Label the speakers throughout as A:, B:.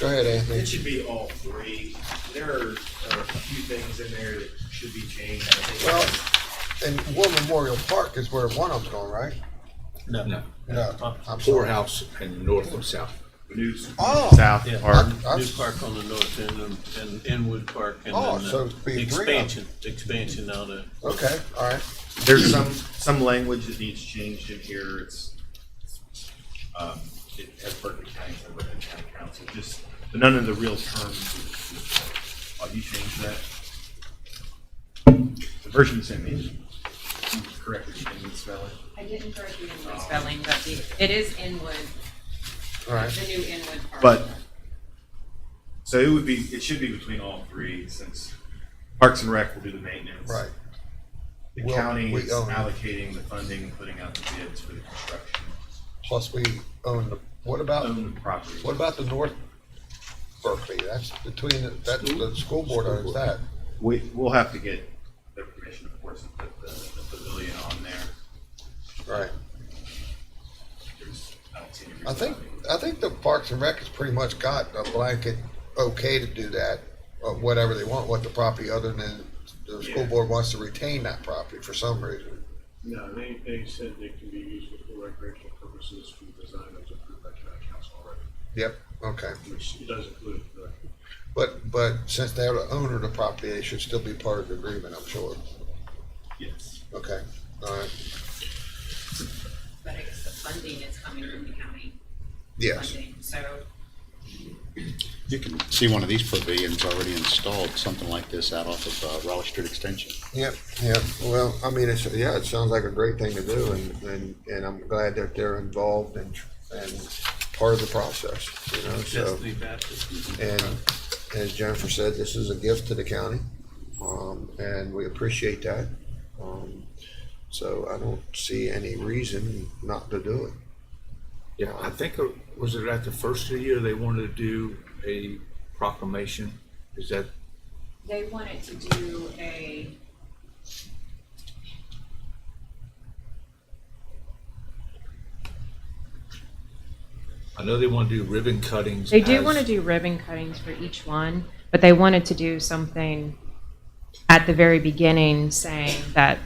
A: Go ahead, Anthony.
B: It should be all three. There are, are a few things in there that should be changed. I think.
A: Well, and War Memorial Park is where one of them's going, right?
C: No,
A: No, I'm sorry.
D: poorhouse and north and south.
B: News.
A: Oh,
E: South
C: yeah.
E: Park.
A: I-
C: New Park on the north end and- and Inwood Park and
A: Oh,
C: then
A: so
C: uh,
A: it's
C: the
A: being three of
C: expansion, expansion out of,
A: okay, all right.
E: There's some,
B: some language that needs changed in here. It's, um, it has Berkeley County, so Berkeley County Council, just, but none of the real terms. Oh, you changed that? The version you sent me, you corrected, you didn't spell it.
F: I didn't correct the Inwood spelling, but the, it is Inwood,
A: All
F: the
A: right.
F: new Inwood Park.
B: But, so it would be, it should be between all three, since Parks and Rec will do the maintenance.
A: Right.
B: The
A: Well,
B: county
A: we
B: is
A: own it.
B: allocating the funding, and putting out the bids for the construction,
A: Plus, we own the, what about,
B: own the property.
A: what about the North Berkeley? That's between, the- that, the school board owns that.
B: We, we'll have to get their permission, of course, to put the, the pavilion on there.
A: Right.
B: There's, I don't see any reason.
A: I think, I think the Parks and Rec has pretty much got a blanket okay to do that, uh, whatever they want with the property, other than the school
B: Yeah.
A: board wants to retain that property for some reason.
G: No, they, they said they can be used for recreational purposes for the design that's approved by county council already,
A: Yep, okay.
G: which it does include the
A: But, but since they're the owner of the property, they should still be part of the agreement, I'm sure.
B: Yes.
A: Okay, all right,
F: But I guess the funding is coming from the county.
A: yes.
F: funding, So,
H: You can see one of these pavilions already installed, something like this out off of uh, Raleigh Street Extension.
A: Yep, yep. Well, I mean, it's, yeah, it sounds like a great thing to do and, and, and I'm glad that they're involved and, and part of the process, you know, so.
C: Bethany Baptist.
A: And as Jennifer said, this is a gift to the county, um, and we appreciate that. Um, so I don't see any reason not to do it.
D: Yeah, I think, uh, was it at the first of the year they wanted to do a proclamation? Is that,
F: they wanted to do a.
D: I know they want to do ribbon cuttings.
I: They do
D: as-
I: want to do ribbon cuttings for each one, but they wanted to do something at the very beginning saying that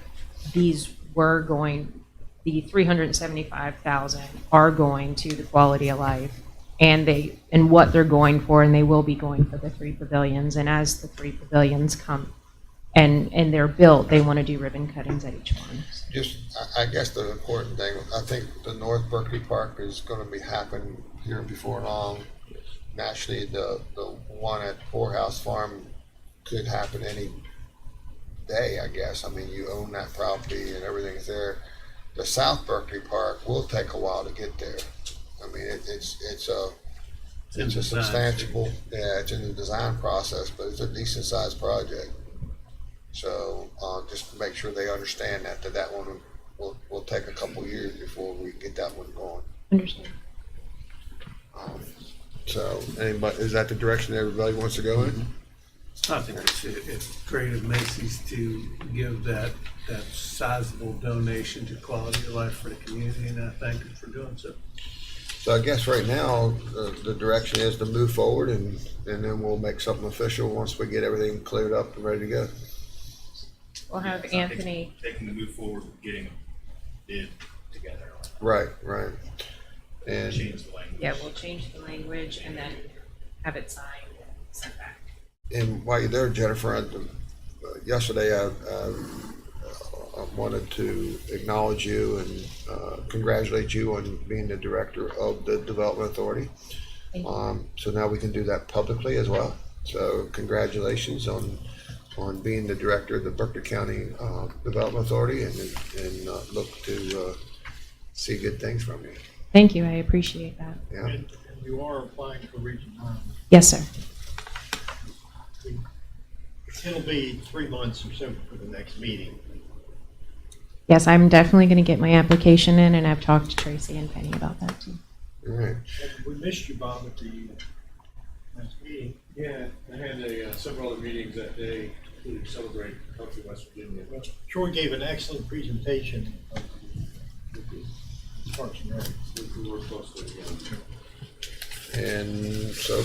I: these were going, the three hundred and seventy-five thousand are going to the quality of life and they, and what they're going for, and they will be going for the three pavilions. And as the three pavilions come and, and they're built, they want to do ribbon cuttings at each one.
A: Just, I, I guess the important thing, I think the North Berkeley Park is gonna be happening here before long. Naturally, the, the one at Poorhouse Farm could happen any day, I guess. I mean, you own that property and everything's there. The South Berkeley Park will take a while to get there. I mean, it, it's, it's a, it's a substantial, yeah, it's in the design process, but it's a decent sized project. So, uh, just to make sure they understand that, that that one will, will take a couple years before we get that one going. Um,
I: Understand?
A: So, anybody, is that the direction everybody wants to go in?
J: I think it's, it's great of Macy's to give that, that sizable donation to quality of life for the community, and I thank them for doing so.
A: So I guess right now, the, the direction is to move forward and, and then we'll make something official once we get everything cleared up and ready to go.
I: We'll
B: Yes,
I: have
B: I think
I: Anthony,
B: They can move forward with getting a bid together, on
A: Right, right.
B: it.
A: And,
B: change the language.
F: yeah, we'll change the language and then have it signed and sent back.
A: and while you're there, Jennifer, I, uh, yesterday I, I, I wanted to acknowledge you and uh, congratulate you on being the director of the Development Authority.
I: Thank you.
A: Um, so now we can do that publicly as well. So congratulations on on being the director of the Berkeley County uh, Development Authority, and and uh, look to uh, see good things from you.
I: thank you, I appreciate that.
A: Yeah.
G: And you are applying for Region Nine.
I: Yes, sir.
G: It'll be three months or so for the next meeting.
I: Yes, I'm definitely going to get my application in, and I've talked to Tracy and Penny about that too.
A: All right.
G: And We missed you, Bob, at the uh, last meeting.
J: Yeah, I had a, uh, several other meetings that day, including celebrating Healthy West Virginia.
G: Troy gave an excellent presentation of the- the Parks and Rec.
J: We worked closely together.
A: And so